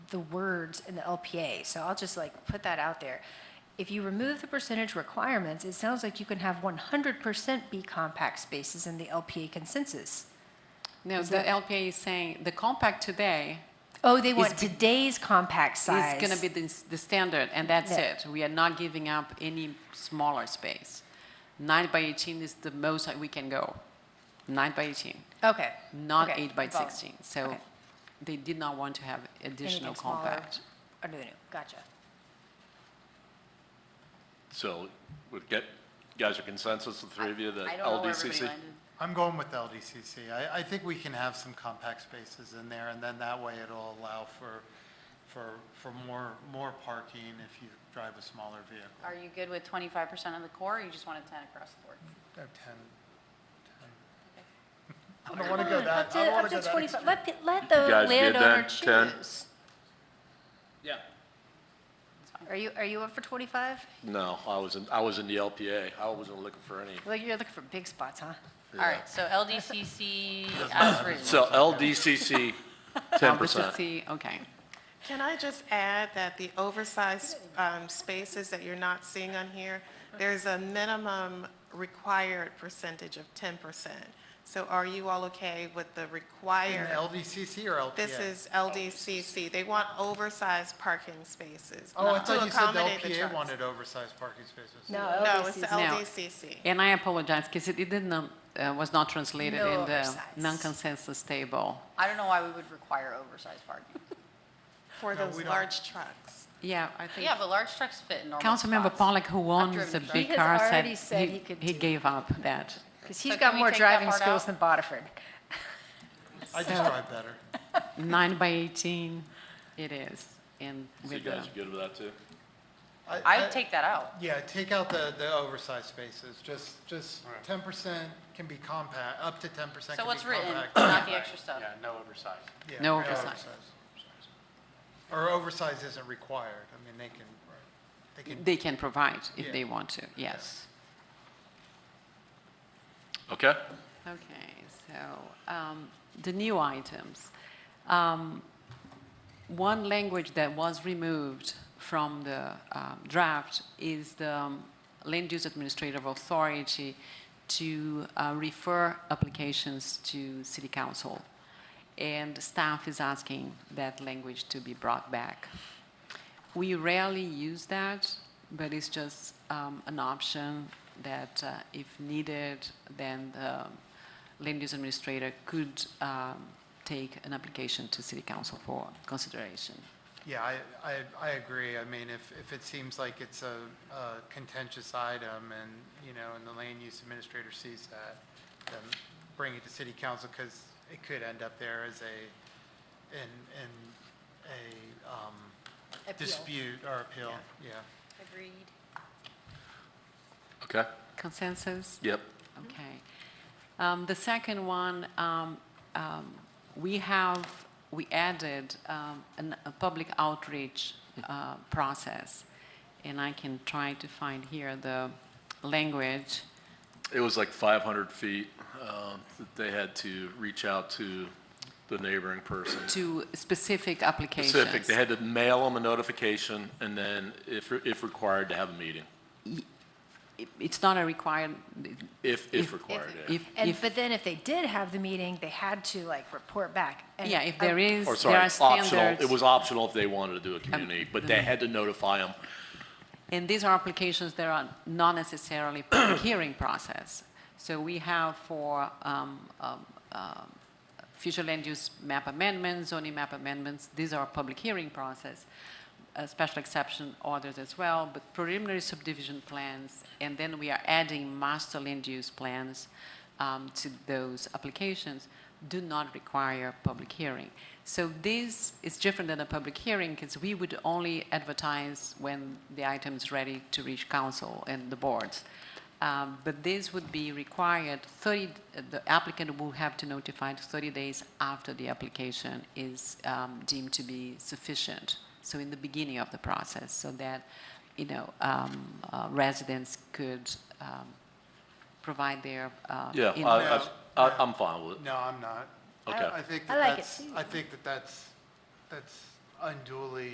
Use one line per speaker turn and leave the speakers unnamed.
the words in the LPA, so I'll just like put that out there. If you remove the percentage requirements, it sounds like you can have 100% be compact spaces in the LPA consensus.
No, the LPA is saying the compact today
Oh, they want
be-
today's compact size.
is going to be the, the standard, and that's
Yeah.
it. We are not giving up any smaller space. Nine by 18 is the most that we can go. Nine by 18,
Okay.
not
okay,
eight by
follow.
16. So
Okay.
they did not want to have additional
Anything smaller
compact.
Under the new, gotcha.
So would get, you guys are consensus, the three of you, that
I don't know where everybody
LDCC?
landed.
I'm going with LDCC. I, I think we can have some compact spaces in there, and then that way it'll allow for, for, for more, more parking if you drive a smaller vehicle.
Are you good with twenty-five percent of the core, or you just want a ten across the board?
Or 10, 10. I don't want to go that, I don't want to go that. extreme.
Let, the- let the
guys good
landowner
then? 10?
choose.
Yeah.
Are you, are you up for 25?
No, I was in, I was in the LPA. I wasn't looking for any.
Well, you're looking for big spots, huh?
All right, so LDCC as written.
So LDCC, 10%.
LBCC, okay.
Can I just add that the oversized um, spaces that you're not seeing on here, there's a minimum required percentage of 10%. So are you all okay with the
In
required?
LDCC or LPA?
This is LDCC. They want oversized parking spaces.
Oh, I
not to
thought you said the
accommodate the
LPA
trucks.
wanted oversized parking spaces.
No, it's the
LDCC.
No.
LDCC.
And I apologize because it didn't, um, uh, was not translated
No
in the
oversize.
non-consensus table.
I don't know why we would require oversized parking.
For
No, we
those
don't.
large trucks.
Yeah, I think.
Yeah, but large trucks fit in normal spots.
Councilmember Pollack, who owns
driven
the
trucks.
big
He has
car, said
already said he
he,
could
he
do
gave up that.
Because he's
So
got
can we
more
take that
driving
part
skills
out?
than Bodiford.
I just drive better.
Nine by 18, it is, and
So you
with the,
guys are good with that too?
I would take that out.
Yeah, take out the, the oversized spaces, just, just ten percent can be compact, up to ten percent
So
can be
what's written,
compact.
not the extra stuff.
Yeah, no oversized.
Yeah,
No oversize.
Or oversize isn't required, I mean, they can, they can,
they can provide if
Yeah.
they want to, yes.
Okay?
Okay, so, um, the new items. Um, One language that was removed from the um, draft is the um, land use administrative authority to uh, refer applications to city council. And staff is asking that language to be brought back. We rarely use that, but it's just um, an option that uh, if needed, then the land use administrator could um, take an application to city council for consideration.
yeah, I, I, I agree, I mean, if, if it seems like it's a a contentious item and, you know, and the land use administrator sees that, then bring it to city council, because it could end up there as a, in, in a, um, dispute or appeal, yeah.
Agreed.
Okay?
Consensus?
Yep.
Okay. Um, The second one, um, um, we have, we added um, an- a public outreach uh, process, and I can try to find here the language.
It was like 500 feet, um, that they had to reach out to the neighboring person.
to specific applications.
Specific, they had to mail them a notification and then if, if required, to have a meeting,
It- It's not a required,
if, if
If-
required. yeah.
if,
And,
if,
but then if they did have the meeting, they had to like report back. And
yeah, if
I-
there is, there
Or sorry,
are
optional,
standards. Um, mm-hmm.
it was optional if they wanted to do a community, but they had to notify them
And these are applications that are not necessarily public hearing process. So we have for um, um, um, future land use map amendments, zoning map amendments, these are public hearing process, uh, special exception orders as well, but preliminary subdivision plans, and then we are adding master land use plans um, to those applications do not require public hearing. So this is different than a public hearing because we would only advertise when the item is ready to reach council and the boards. Um, But this would be required, 30, the applicant will have to notify 30 days after the application is um, deemed to be sufficient. So in the beginning of the process, so that, you know, um, uh, residents could um, provide their uh,
Yeah,
input.
I, I, I- I'm fine with it.
No, I'm not.
Okay.
I think
I
that
like it
that's, I think that that's, that's unduly